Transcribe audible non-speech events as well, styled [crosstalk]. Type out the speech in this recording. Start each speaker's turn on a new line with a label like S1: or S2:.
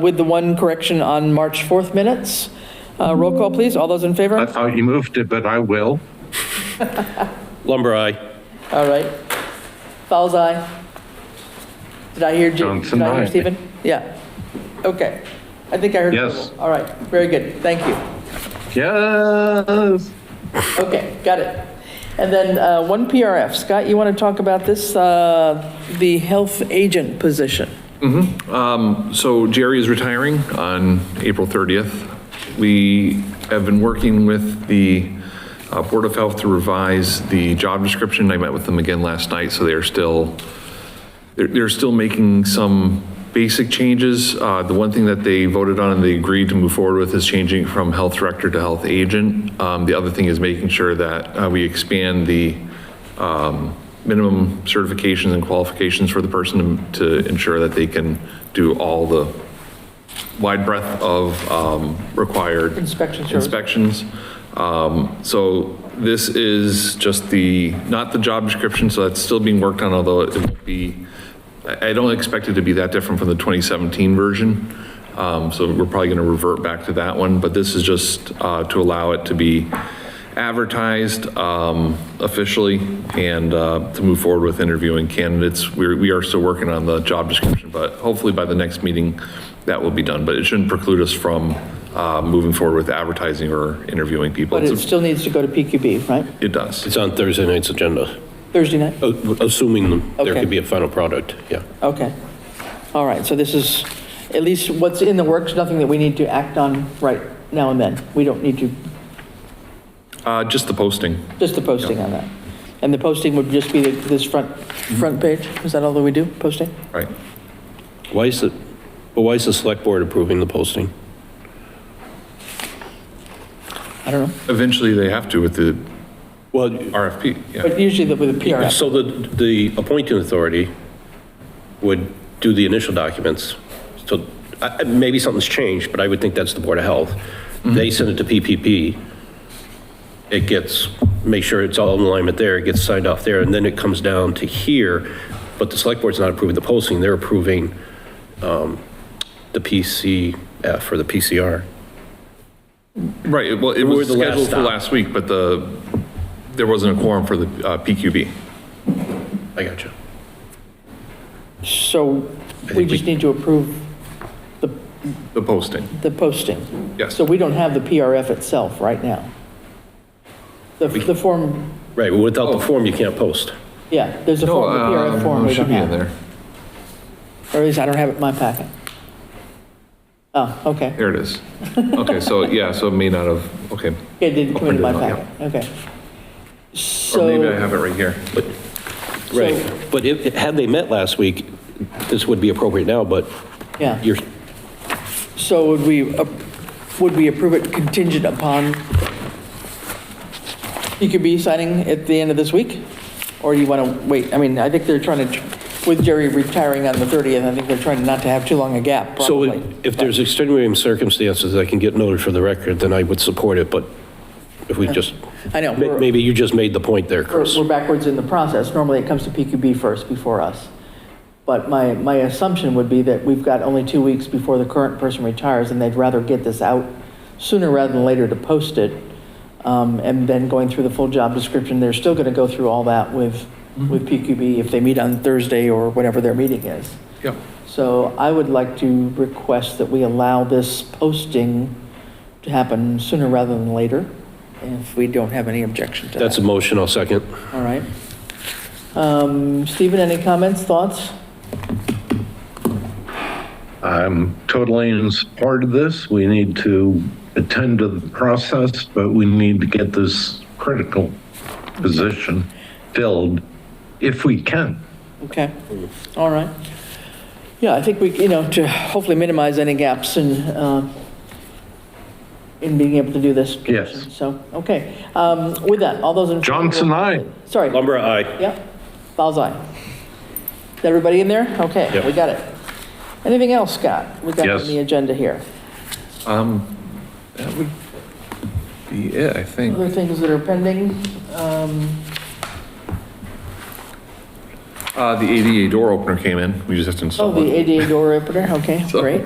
S1: with the one correction on March 4th minutes. Uh, Roll call, please. All those in
S2: I
S1: favor?
S2: thought you moved it, but I will.
S3: [laughs] Lumber, aye.
S1: All right. Fowles, aye. Did I hear, Ju-
S2: Johnson,
S1: did I hear
S2: aye.
S1: Stephen? Yeah. Okay. I think I heard.
S2: Yes.
S1: All right, very good. Thank you.
S2: Yes.
S1: Okay, got it. And then uh, one PRF. Scott, you want to talk about this, uh, the health agent position?
S4: So Jerry is retiring on April 30th. We have been working with the uh, Board of Health to revise the job description. I met with them again last night, so they are still, they're, they're still making some basic changes. Uh, The one thing that they voted on and they agreed to move forward with is changing from health director to health agent. Um, The other thing is making sure that uh, we expand the um, minimum certifications and qualifications for the person to ensure that they can do all the wide breadth of um, required.
S1: Inspection service.
S4: Inspections. Um, So this is just the, not the job description, so that's still being worked on, although it will be, I I don't expect it to be that different from the 2017 version. Um, So we're probably going to revert back to that one, but this is just uh, to allow it to be advertised um, officially and uh, to move forward with interviewing candidates. We're- We are still working on the job description, but hopefully by the next meeting, that will be done. But it shouldn't preclude us from uh, moving forward with advertising or interviewing people.
S1: But it
S4: It's a-
S1: still needs to go to PQB, right?
S4: It does.
S3: It's on Thursday night's agenda,
S1: Thursday night?
S3: a- assuming there
S1: Okay.
S3: could be a final product, yeah.
S1: Okay. All right, so this is at least what's in the works, nothing that we need to act on right now and then. We don't need to,
S4: Uh, Just the posting.
S1: just the posting on that. And the posting would just be the- this front,
S4: Mm-hmm.
S1: front page? Is that all that we do, posting?
S4: Right.
S3: Why is the, but why is the select board approving the posting?
S1: I don't know.
S4: Eventually, they have to with the
S3: Well,
S4: RFP. Yeah.
S1: But usually the- with a PRF.
S3: so the, the appointing authority would do the initial documents. So I- I- maybe something's changed, but I would think that's the Board of Health. They send it to PPP. It gets, make sure it's all in alignment there, it gets signed off there, and then it comes down to here. But the select board's not approving the posting, they're approving um, the PCF or the PCR.
S4: Right, well, it
S3: We're
S4: was
S3: the last
S4: scheduled for
S3: stop.
S4: last week, but the, there wasn't a quorum for the uh, PQB.
S3: I got you.
S1: So we
S3: think
S1: just
S3: we-
S1: need to approve
S4: The posting,
S1: the posting.
S4: yes.
S1: So we don't have the PRF itself right now. The, the form,
S3: Right, well, without the form, you can't post.
S1: yeah, there's a
S4: No,
S1: form, the PRF
S4: um,
S1: form
S4: it
S1: we
S4: should
S1: don't
S4: be in
S1: have.
S4: there.
S1: Or at least I don't have it in my packet. Oh, okay.
S4: There it
S1: [laughs]
S4: is. Okay, so, yeah, so it may not have, okay.
S1: It didn't come
S4: Open
S1: into my
S4: it up, yeah.
S1: packet, okay.
S4: Or maybe I
S1: So,
S4: have it right here.
S3: Right, but if, had they met last week, this would be appropriate now, but
S1: yeah,
S3: you're,
S1: so would we, ap- would we approve it contingent upon PQB signing at the end of this week? Or do you want to wait? I mean, I think they're trying to, with Jerry retiring on the 30th, I think they're trying not to have too long a gap,
S3: So
S1: probably.
S3: if there's extenuating circumstances that can get noted for the record, then I would support it, but if we just,
S1: I know.
S3: ma-
S1: we're-
S3: maybe you just made the point there,
S1: We're
S3: Chris.
S1: we're backwards in the process. Normally, it comes to PQB first before us. But my, my assumption would be that we've got only two weeks before the current person retires, and they'd rather get this out sooner rather than later to post it. Um, And then going through the full job description, they're still going to go through all that with, with PQB if they meet on Thursday or whatever their meeting is.
S4: Yeah,
S1: So I would like to request that we allow this posting to happen sooner rather than later, if we don't have any objection to that.
S3: That's a motion, I'll second.
S1: All right. Um, Stephen, any comments, thoughts?
S2: I'm totally in support of this. We need to attend to the process, but we need to get this critical position filled if we can.
S1: Okay, all right. Yeah, I think we, you know, to hopefully minimize any gaps in, um, in being able to do this.
S2: Yes.
S1: So, okay. Um, With that, all those in. favor-
S2: Johnson, aye.
S1: Sorry.
S3: Lumber, aye.
S1: Yep, Fowles eye. Is everybody in there? Okay,
S3: Yep.
S1: we got it. Anything else, Scott? We got
S2: Yes.
S1: on the agenda here.
S4: that would be it, I think.
S1: Other things that are pending? um,
S4: Uh, The ADA door opener came in, we just have to
S1: Oh,
S4: install
S1: the
S4: it.
S1: ADA door opener, okay,
S4: So-
S1: great.